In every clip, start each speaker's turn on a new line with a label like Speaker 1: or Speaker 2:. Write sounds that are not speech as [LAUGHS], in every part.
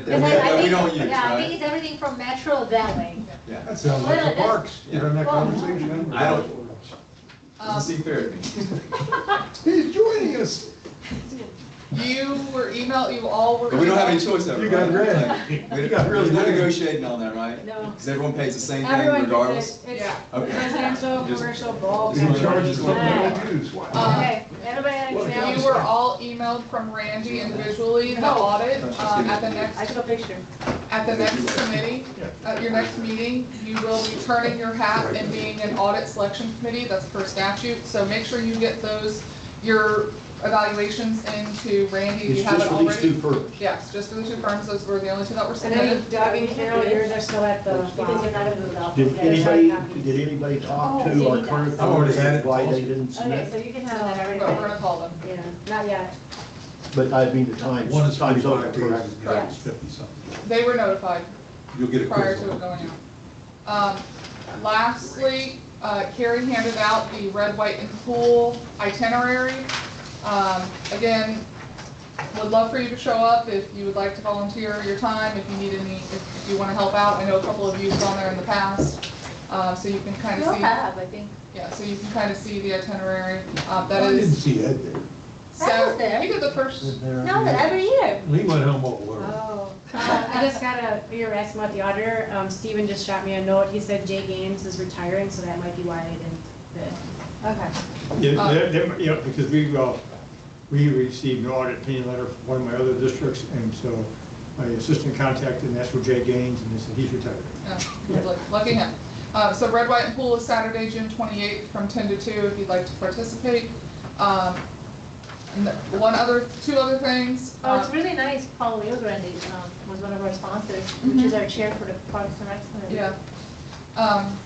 Speaker 1: That
Speaker 2: Because I- I
Speaker 1: that we
Speaker 2: think-
Speaker 1: don't use,
Speaker 2: Yeah, I think
Speaker 1: right?
Speaker 2: it's everything from Metro that way.
Speaker 1: Yeah.
Speaker 3: That sounds like the parks, you know, that conversation.
Speaker 1: I don't-
Speaker 2: um,
Speaker 1: Doesn't seem fair to me.
Speaker 3: He's joining us.
Speaker 4: You were emailed, you all were.
Speaker 1: But we don't have any
Speaker 4: emailed.
Speaker 1: choice ever.
Speaker 3: You got
Speaker 1: right?
Speaker 3: red.
Speaker 1: Like, we-
Speaker 3: [LAUGHS] You got really
Speaker 1: There's no
Speaker 3: red.
Speaker 1: negotiating on that, right?
Speaker 5: No.
Speaker 1: Because everyone pays the same thing
Speaker 5: Everyone
Speaker 1: regardless.
Speaker 5: gets it. It's
Speaker 4: Yeah.
Speaker 1: Okay.
Speaker 5: residential,
Speaker 1: Just-
Speaker 5: commercial, bulk.
Speaker 3: He charges what we
Speaker 5: Wow.
Speaker 3: don't use. Wow.
Speaker 4: Uh,
Speaker 2: Okay, everybody understand?
Speaker 4: You were all emailed from Randy individually, the audit, uh, at the
Speaker 5: I
Speaker 4: next,
Speaker 5: took a picture.
Speaker 4: at the next committee, at your next meeting, you will be turning your hat and being an audit selection committee, that's per statute, so make sure you get those, your evaluations into Randy, if you
Speaker 3: It's
Speaker 4: haven't
Speaker 3: just for these two
Speaker 4: already.
Speaker 3: firms.
Speaker 4: Yes, just for the two firms, those were the only two that were
Speaker 5: And
Speaker 4: submitted.
Speaker 5: then Doug and Carol, yours are still at the.
Speaker 6: Because you're not a move out.
Speaker 7: Did anybody, did anybody talk to our current
Speaker 1: I've already
Speaker 7: board
Speaker 1: had
Speaker 7: and
Speaker 1: it.
Speaker 7: why they didn't
Speaker 6: Okay, so
Speaker 7: submit?
Speaker 6: you can have that
Speaker 4: But we're gonna
Speaker 6: everybody.
Speaker 4: call them.
Speaker 6: Yeah.
Speaker 5: Not yet.
Speaker 7: But I mean, the times,
Speaker 3: One is
Speaker 7: time's over,
Speaker 3: forty-five
Speaker 7: correct?
Speaker 3: days, the other is fifty-something.
Speaker 4: They were notified.
Speaker 3: You'll get a
Speaker 4: prior
Speaker 3: quiz
Speaker 4: to it
Speaker 3: on it.
Speaker 4: going out. Um, Lastly, uh, Carrie handed out the red, white, and cool itinerary. Um, Again, would love for you to show up if you would like to volunteer your time, if you need any, if you want to help out. I know a couple of you've gone there in the past, uh, so you can kind
Speaker 2: You'll
Speaker 4: of see,
Speaker 2: have, I think.
Speaker 4: yeah, so you can kind of see the itinerary. Uh,
Speaker 3: I
Speaker 4: That
Speaker 3: didn't
Speaker 4: is,
Speaker 3: see Ed there.
Speaker 2: That was
Speaker 4: so,
Speaker 2: there.
Speaker 4: you did the first,
Speaker 2: No, but every year.
Speaker 3: He went home all alone.
Speaker 5: Oh. Uh,
Speaker 2: [LAUGHS]
Speaker 5: I just got a, we were asking about the auditor. Um, Steven just shot me a note. He said Jay Gaines is retiring, so that might be why I didn't bid.
Speaker 2: Okay.
Speaker 8: Yeah, there- there- yeah, because we, uh, we received an audit opinion letter from one of my other districts, and so my assistant contacted, and that's where Jay Gaines, and they said he's retired.
Speaker 4: Yeah, Lucky him. Uh, So Red, White, and Pool is Saturday, June 28th, from 10 to 2, if you'd like to participate. Um, and the- One other, two other things.
Speaker 6: Oh,
Speaker 4: uh,
Speaker 6: it's really nice. Paul Leogrande um, was one of our sponsors, which is our chair for the Parks and Rec. Committee.
Speaker 4: Yeah. Um,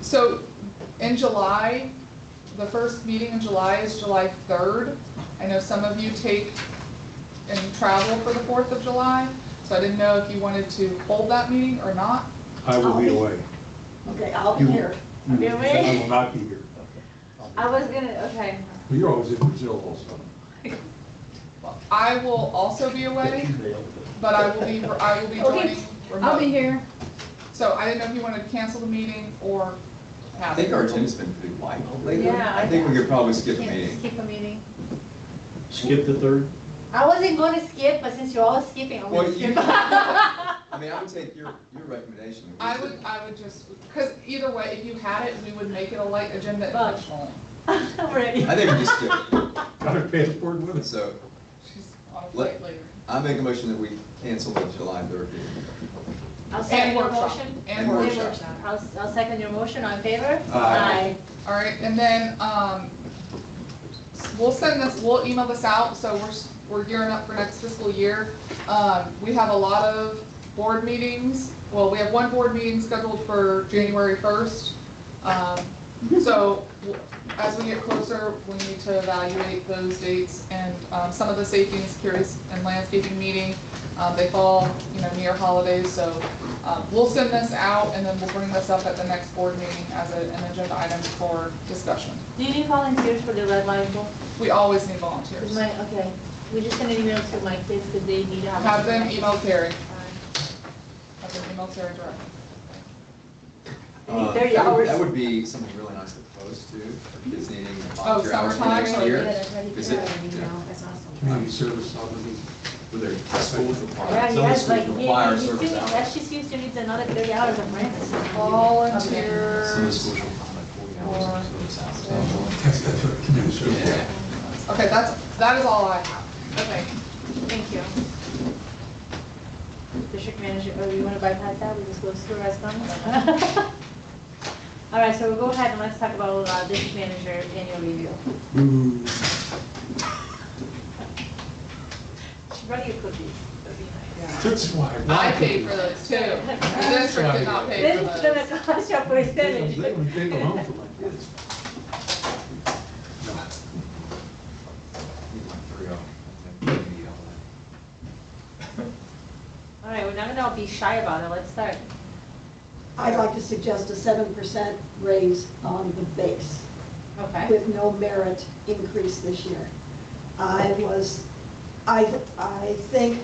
Speaker 4: So in July, the first meeting in July is July 3rd. I know some of you take and travel for the 4th of July, so I didn't know if you wanted to hold that meeting or not.
Speaker 3: I will
Speaker 4: Oh.
Speaker 3: be away.
Speaker 6: Okay, I'll be
Speaker 3: You-
Speaker 6: here.
Speaker 3: You-
Speaker 6: Be away?
Speaker 3: I will not be here.
Speaker 2: I was gonna, okay.
Speaker 3: Well, You're always in Brazil also.
Speaker 4: I will also be away, but I will be, I will be
Speaker 5: Okay,
Speaker 4: joining remote.
Speaker 5: I'll be here.
Speaker 4: So I didn't know if you wanted to cancel the meeting or
Speaker 1: I
Speaker 4: have it.
Speaker 1: think our agenda's been pretty light lately.
Speaker 2: Yeah,
Speaker 1: I think we could probably skip a
Speaker 2: Can't
Speaker 1: meeting.
Speaker 2: Skip a meeting.
Speaker 7: Skip the third?
Speaker 2: I wasn't gonna skip, but since you're all skipping, I'm
Speaker 1: Well,
Speaker 2: gonna [LAUGHS]
Speaker 1: you-
Speaker 2: skip.
Speaker 1: I mean, I would take your, your recommendation.
Speaker 4: I would, I would just, because either way, if you had it, we would make it a light agenda
Speaker 6: But-
Speaker 4: intentionally.
Speaker 6: [LAUGHS] I'm ready.
Speaker 1: I think we just skip it.
Speaker 3: Got a passport with us.
Speaker 1: So
Speaker 4: She's on a
Speaker 1: Let-
Speaker 4: flight later.
Speaker 1: I make a motion that we cancel the July third meeting.
Speaker 2: I'll
Speaker 4: And
Speaker 2: second your
Speaker 4: workshop,
Speaker 2: motion.
Speaker 4: and
Speaker 1: And
Speaker 4: workshop.
Speaker 1: workshop.
Speaker 2: I'll, I'll second your motion, on favor?
Speaker 1: Aye.
Speaker 4: All right, and then, um, we'll send this, we'll email this out, so we're, s- we're gearing up for next fiscal year. Um, we have a lot of board meetings, well, we have one board meeting scheduled for January first. Um, so, w- as we get closer, we need to evaluate those dates, and, um, some of the safety and security and landscaping meeting, uh, they fall, you know, near holidays, so, um, We'll send this out and then we'll bring this up at the next board meeting as a- an agenda item for discussion.
Speaker 6: Do you need volunteers for the red light bulb?
Speaker 4: We always need
Speaker 6: Is
Speaker 4: volunteers.
Speaker 6: my, okay, we just send an email to my kids because they need to have.
Speaker 4: Have them e- email Carrie.
Speaker 6: Alright.
Speaker 4: Have them email Carrie directly.
Speaker 1: Uh,
Speaker 6: Thirty
Speaker 1: that would-
Speaker 6: hours.
Speaker 1: That would be something really nice to post to, for kids needing
Speaker 4: Oh,
Speaker 1: volunteer hours for
Speaker 4: summertime,
Speaker 1: next
Speaker 4: yeah.
Speaker 1: year.
Speaker 5: ready
Speaker 1: Is
Speaker 5: to
Speaker 1: it-
Speaker 5: go, you know, That's awesome.
Speaker 3: Community service obligation.
Speaker 1: With their schools require, some
Speaker 6: Yeah,
Speaker 1: of the
Speaker 6: yes, like,
Speaker 1: schools require
Speaker 6: yeah, you
Speaker 1: service
Speaker 6: still, that
Speaker 1: hours.
Speaker 6: she still needs another thirty hours of rent.
Speaker 1: Some of the
Speaker 4: Volunteers.
Speaker 1: schools require like forty hours of service hours.
Speaker 3: That's, that's what community service.
Speaker 1: Yeah.
Speaker 4: Okay, that's, that is all I have.
Speaker 6: Okay, thank you. District manager, oh, you wanna bypass that, we just go through our stuff? [LAUGHS] All right, so we'll go ahead and let's talk about uh, district manager annual review. Run your cookies, that'd be nice.
Speaker 3: That's why.
Speaker 4: I paid for those too. The district did not pay for
Speaker 6: This is
Speaker 4: those.
Speaker 6: gonna [LAUGHS] cost you a
Speaker 3: They
Speaker 6: percentage.
Speaker 3: would take them home for my kids. No.
Speaker 1: Need like three hours. and then maybe all that.
Speaker 6: All right, we're not gonna be shy about it, let's start.
Speaker 9: I'd like to suggest a seven percent raise on the base
Speaker 6: Okay.
Speaker 9: with no merit increase this year. I was, I, I think